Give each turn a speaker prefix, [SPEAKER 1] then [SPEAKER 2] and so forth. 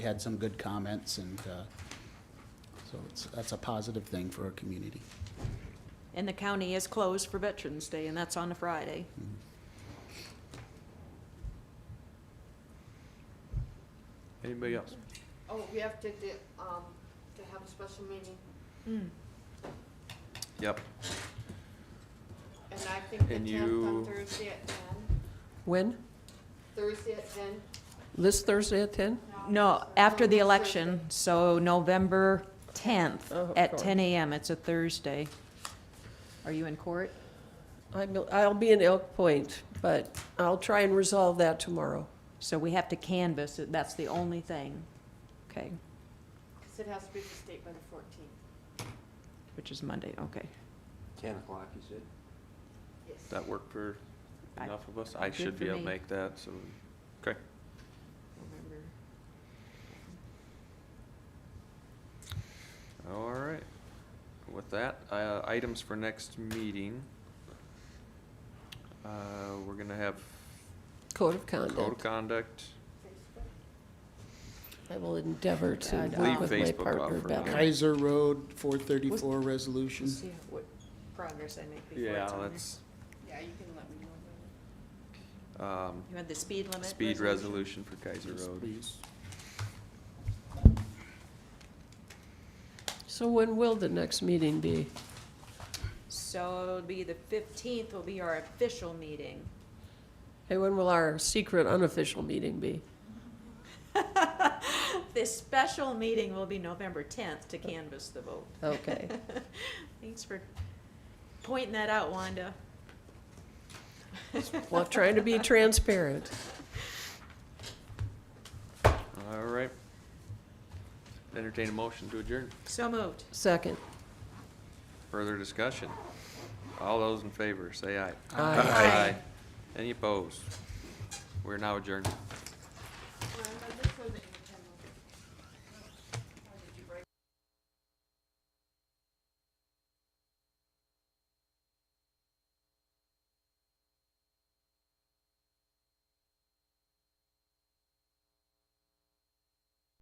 [SPEAKER 1] had some good comments, and uh, so it's, that's a positive thing for our community.
[SPEAKER 2] And the county is closed for Veterans Day, and that's on a Friday.
[SPEAKER 3] Anybody else?
[SPEAKER 4] Oh, we have to, do, um, to have a special meeting,
[SPEAKER 2] Hmm.
[SPEAKER 3] Yep.
[SPEAKER 4] and I think the
[SPEAKER 3] And
[SPEAKER 4] tenth
[SPEAKER 3] you-
[SPEAKER 4] on Thursday at ten,
[SPEAKER 5] When?
[SPEAKER 4] Thursday at ten?
[SPEAKER 5] This Thursday at ten?
[SPEAKER 2] No, after the election, so November tenth
[SPEAKER 5] Oh, of
[SPEAKER 2] at
[SPEAKER 5] course.
[SPEAKER 2] ten AM. It's a Thursday. Are you in court?
[SPEAKER 5] I'm, I'll be in Elk Point, but I'll try and resolve that tomorrow.
[SPEAKER 2] So we have to canvass it. That's the only thing. Okay,
[SPEAKER 4] Cause it has to be to the state by the fourteenth,
[SPEAKER 2] which is Monday, okay.
[SPEAKER 3] Ten o'clock, you said?
[SPEAKER 4] yes.
[SPEAKER 3] That work for
[SPEAKER 2] I-
[SPEAKER 3] enough of us? I
[SPEAKER 2] good
[SPEAKER 3] should
[SPEAKER 2] for
[SPEAKER 3] be able to
[SPEAKER 2] me.
[SPEAKER 3] make that, so, okay.
[SPEAKER 4] November.
[SPEAKER 3] All right. With that, uh, items for next meeting. Uh, we're gonna have
[SPEAKER 5] Code of
[SPEAKER 3] code of
[SPEAKER 5] conduct.
[SPEAKER 3] conduct.
[SPEAKER 4] Facebook?
[SPEAKER 5] I will endeavor to
[SPEAKER 2] And,
[SPEAKER 5] work with
[SPEAKER 3] Leave
[SPEAKER 5] my
[SPEAKER 3] Facebook off
[SPEAKER 5] partner
[SPEAKER 3] for
[SPEAKER 5] better.
[SPEAKER 3] now.
[SPEAKER 1] Kaiser Road, 434 resolution.
[SPEAKER 2] what progress I make
[SPEAKER 3] Yeah, let's,
[SPEAKER 4] Yeah, you can let me know. when.
[SPEAKER 3] um,
[SPEAKER 2] You had the speed limit?
[SPEAKER 3] speed resolution for Kaiser
[SPEAKER 1] Yes,
[SPEAKER 3] Road.
[SPEAKER 1] please.
[SPEAKER 5] So when will the next meeting be?
[SPEAKER 2] So it'll be the fifteenth will be our official meeting.
[SPEAKER 5] Hey, when will our secret unofficial meeting be?
[SPEAKER 2] This special meeting will be November tenth to canvass the vote.
[SPEAKER 5] Okay.
[SPEAKER 2] Thanks for pointing that out, Wanda.
[SPEAKER 5] Well, trying to be transparent.
[SPEAKER 3] All right. Entertain a motion to adjourn.
[SPEAKER 2] So moved.
[SPEAKER 5] Second.
[SPEAKER 3] Further discussion? All those in favor, say aye.
[SPEAKER 5] Aye.
[SPEAKER 3] Any opposed? We're now adjourned.